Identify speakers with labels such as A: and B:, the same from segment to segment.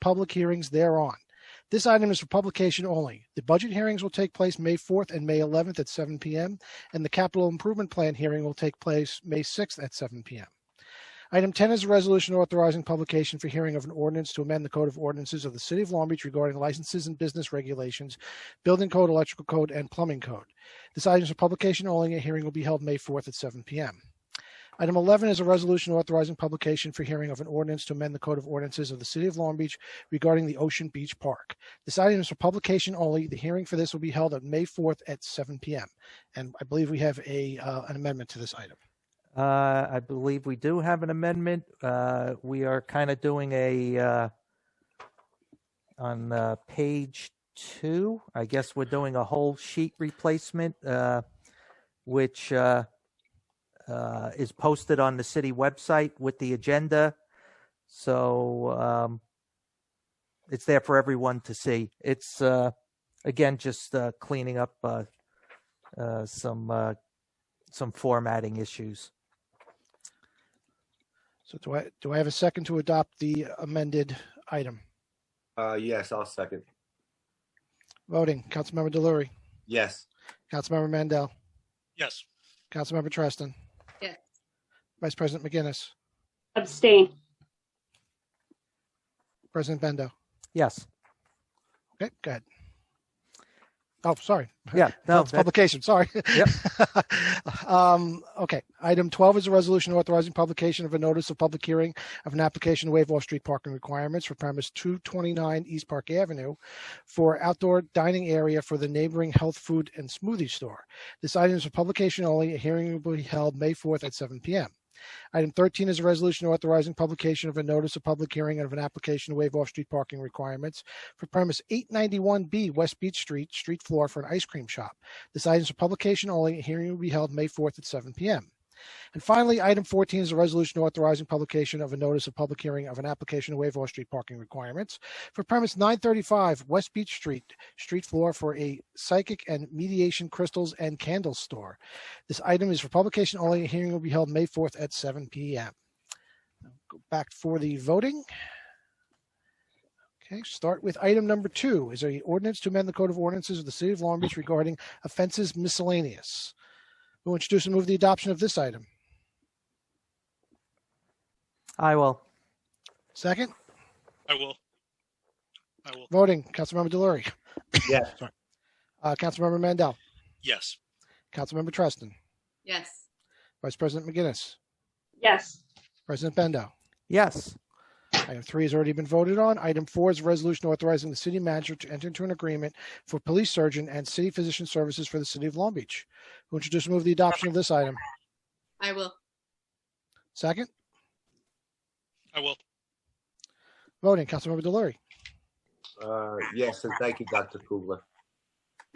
A: public hearings thereon. This item is for publication only. The budget hearings will take place May 4th and May 11th at 7 PM, and the capital improvement plan hearing will take place May 6th at 7 PM. Item 10 is a resolution authorizing publication for hearing of an ordinance to amend the Code of Ordinances of the City of Long Beach regarding licenses and business regulations, building code, electrical code, and plumbing code. This item is for publication only. A hearing will be held May 4th at 7 PM. Item 11 is a resolution authorizing publication for hearing of an ordinance to amend the Code of Ordinances of the City of Long Beach regarding the Ocean Beach Park. This item is for publication only. The hearing for this will be held on May 4th at 7 PM. And I believe we have a, uh, an amendment to this item.
B: Uh, I believe we do have an amendment. Uh, we are kind of doing a, uh, on, uh, page two, I guess we're doing a whole sheet replacement, uh, which, uh, uh, is posted on the city website with the agenda. So, um, it's there for everyone to see. It's, uh, again, just, uh, cleaning up, uh, uh, some, uh, some formatting issues.
A: So do I, do I have a second to adopt the amended item?
C: Uh, yes, I'll second.
A: Voting, Councilmember Delory,
C: Yes.
A: Councilmember Mandel,
D: yes,
A: Councilmember Treston,
E: Yes.
A: Vice President McGinnis,
F: abstain,
A: President Bendo.
B: Yes.
A: Okay, go ahead. Oh, sorry.
B: Yeah.
A: No,
B: No.
A: it's
B: that-
A: publication. Sorry.
B: Yep.
A: um, okay. Item 12 is a resolution authorizing publication of a notice of public hearing of an application to waive off street parking requirements for premise 229 East Park Avenue for outdoor dining area for the neighboring health food and smoothie store. This item is for publication only. A hearing will be held May 4th at 7 p.m. Item 13 is a resolution authorizing publication of a notice of public hearing of an application to waive off street parking requirements for premise 891B West Beach Street, street floor for an ice cream shop. This item is for publication only. A hearing will be held May 4th at 7 p.m. And finally, item 14 is a resolution authorizing publication of a notice of public hearing of an application to waive all street parking requirements for premise 935 West Beach Street, street floor for a psychic and mediation crystals and candles store. This item is for publication only. A hearing will be held May 4th at 7 p.m. Now Go back for the voting. Okay, start with item number two. Is there an ordinance to amend the Code of Ordinances of the City of Long Beach regarding offenses miscellaneous. Who will introduce and move the adoption of this item?
B: I will.
A: Second,
D: I will. I will,
A: voting, Councilmember Delory.
C: Yes.
A: Sorry. Uh, Councilmember Mandel,
D: yes,
A: Councilmember Treston,
E: yes,
A: Vice President McGinnis,
F: yes,
A: President Bendo.
B: Yes.
A: Item three has already been voted on. Item four is a resolution authorizing the city manager to enter into an agreement for police surgeon and city physician services for the city of Long Beach. Who will introduce and move the adoption of this item?
E: I will,
A: Second,
D: I will,
A: voting, Councilmember Delory,
C: Uh, yes, and thank you, Dr. Kugler.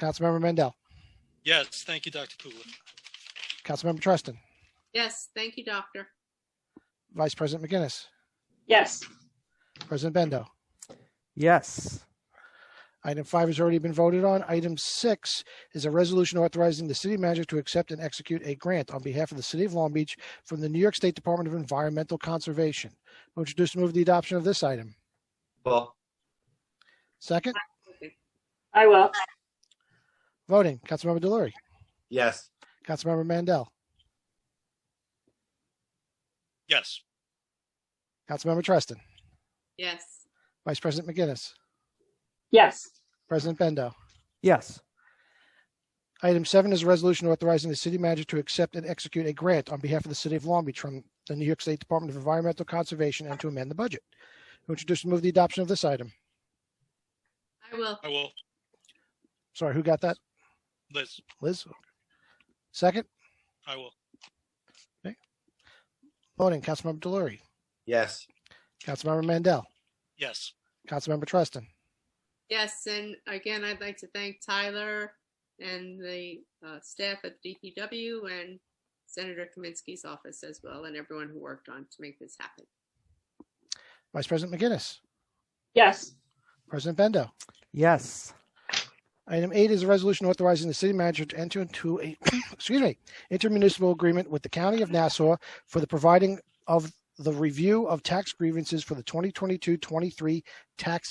A: Councilmember Mandel,
D: yes, thank you, Dr. Kugler,
A: Councilmember Treston,
E: yes, thank you, doctor,
A: Vice President McGinnis,
F: yes,
A: President Bendo.
B: Yes.
A: Item five has already been voted on. Item six is a resolution authorizing the city manager to accept and execute a grant on behalf of the city of Long Beach from the New York State Department of Environmental Conservation. Who would introduce and move the adoption of this item?
C: Well,
A: Second,
F: I will,
A: voting, Councilmember Delory,
C: yes.
A: Councilmember Mandel,
D: yes,
A: Councilmember Treston,
E: yes,
A: Vice President McGinnis,
F: yes,
A: President Bendo.
B: Yes.
A: Item seven is a resolution authorizing the city manager to accept and execute a grant on behalf of the city of Long Beach from the New York State Department of Environmental Conservation and to amend the budget. Who would introduce and move the adoption of this item?
E: I will,
D: I will,
A: Sorry, who got that?
D: Liz,
A: Liz? Second,
D: I will,
A: voting, Councilmember Delory,
C: Yes.
A: Councilmember Mandel,
D: yes,
A: Councilmember Treston,
E: yes, and again, I'd like to thank Tyler and the uh, staff at DPW and Senator Kaminsky's office as well, and everyone who worked on to make this happen.
A: Vice President McGinnis,
F: yes,
A: President Bendo.
B: Yes.
A: Item eight is a resolution authorizing the city manager to enter into a, excuse me, intermunicipal agreement with the county of Nassau for the providing of the review of tax grievances for the 2022-23 tax